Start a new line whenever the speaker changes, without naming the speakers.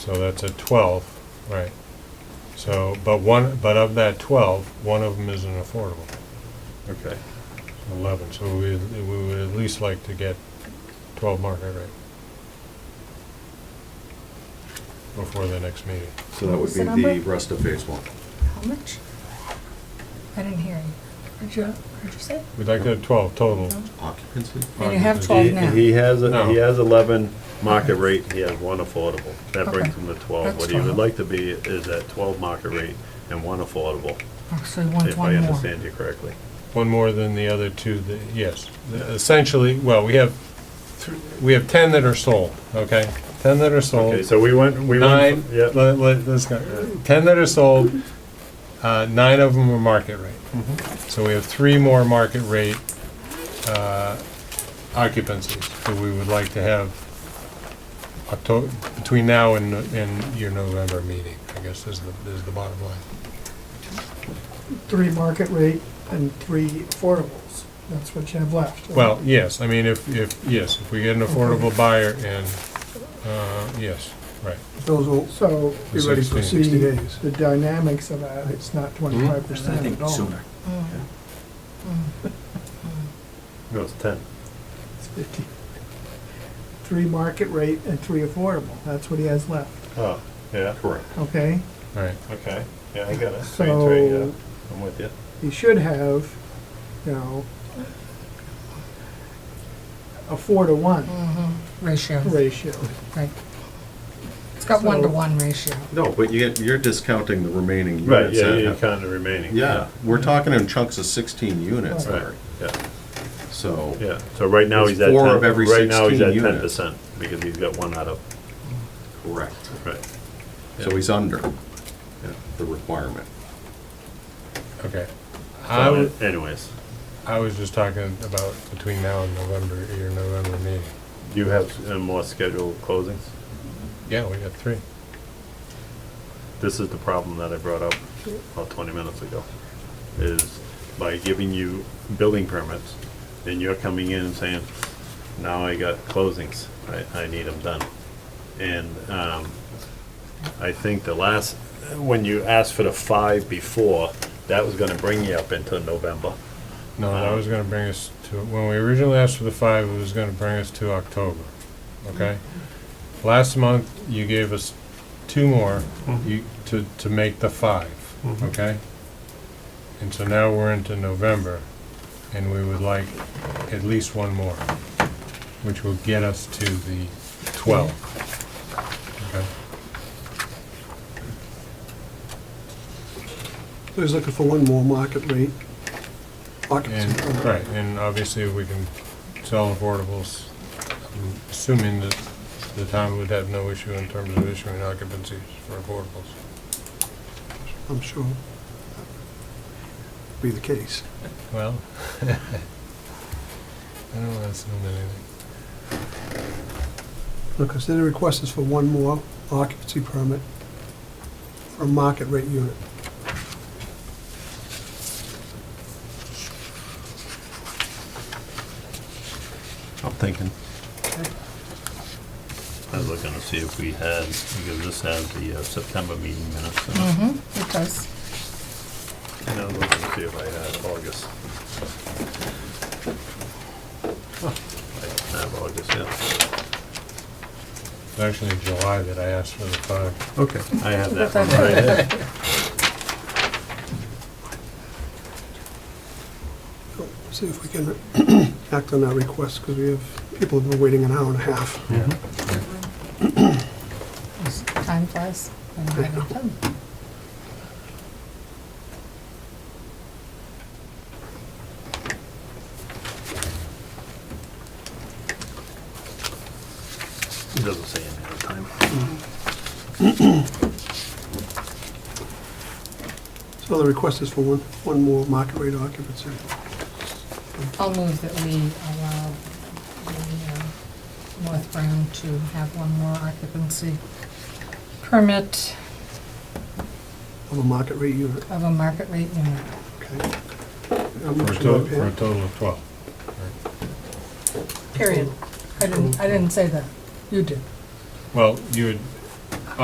So that's a 12, right. So, but one, but of that 12, one of them isn't affordable,
Okay.
11. So we, we would at least like to get 12 market rate before the next meeting.
So that would
What's
be
the number?
the rest of phase one.
How much? I didn't hear you. What'd you, what'd you say?
We'd like to have 12 total.
Occupancy?
And you have
He-
twelve
Oh, He-
now.
He has, a- he
No.
has 11 market rate, he has one affordable. That brings
Okay.
him to 12.
That's
What he would
12.
like to be is at 12 market rate and one affordable,
Oh, So you want
if I
one more.
understand you correctly.
One more than the other two, that- yes. Essentially, well, we have, thr- we have 10 that are sold, okay? 10 that are sold.
Okay, so we went, we
Nine, let,
went, yeah,
let, let's go. Ten that are sold, uh, nine of them are market rate. So we have three more market rate, uh, occupancies that we would like to have Octo, between now and, and your November meeting, I guess is the, is the bottom line.
three market rate and three affordables. That's what you have left. right?
Well, yes, I mean, if, if, yes, if we get an affordable buyer and, uh, yes, right.
Those will
So
be ready for
16.
60 days.
the dynamics of that, it's not twenty-five percent at all.
Mm.
no, it's 10.
It's fifty. Three market rate and three affordable. That's what he has left,
Oh, yeah,
Correct.
okay?
All right,
okay, yeah, I got it. Three, three, yeah,
So
I'm with you.
he should have, you know, a four to one
Mm-hmm.
Ratio,
ratio.
right. It's got one to
So-
one ratio.
No, but you, you're discounting the remaining
Right,
units.
yeah,
that
you
have-
kind of remaining.
Yeah, we're talking in chunks of sixteen units
Right.
there,
Yeah,
so.
yeah, so right now he's
It's
at 10.
four of every
Right now he's
16
at
units.
10% because he's got one out of,
Correct.
right.
So he's under the requirement.
okay. I would-
So anyways,
I was just talking about between now and November, your November meeting.
you have uh, more scheduled closings?
Yeah, we got three.
this is the problem that I brought up about twenty minutes ago, is by giving you building permits, and you're coming in and saying, now I got closings, I, I need them done. And, um, I think the last, when you asked for the five before, that was gonna bring you up into November.
No, that was gonna bring us to, when we originally asked for the five, it was gonna bring us to October, okay? Last month, you gave us two more, you, to, to make the five, okay? And so now we're into November, and we would like at least one more, which will get us to the twelve. Okay,
So he's looking for one more market rate occupancy.
And, right, and obviously, we can sell affordables, I'm assuming that the town would have no issue in terms of issuing occupancies for affordables.
I'm sure be the case.
Well, I don't want to assume anything.
Okay, so the request is for one more occupancy permit for a market rate unit.
I'm thinking. I was looking to see if we had, because this has the uh, September meeting minutes. in it.
Mm-hmm, it does.
And I was looking to see if I had August. I don't have August, yeah.
It's actually in July that I asked for the five.
Okay. I have that one
Okay.
right there.
See if we can act on that request, because we have, people have been waiting an hour and a half.
Time flies. and I don't tell you.
It doesn't say any other time.
So the request is for one, one more market rate occupancy.
I'll move that we allow the uh, North Brown to have one more occupancy permit
of a market rate unit,
of a market rate unit.
okay? A
For a
motion
total,
by
for a
Pam,
total of twelve.
Period. I didn't, I didn't say that. You did.
Well, you had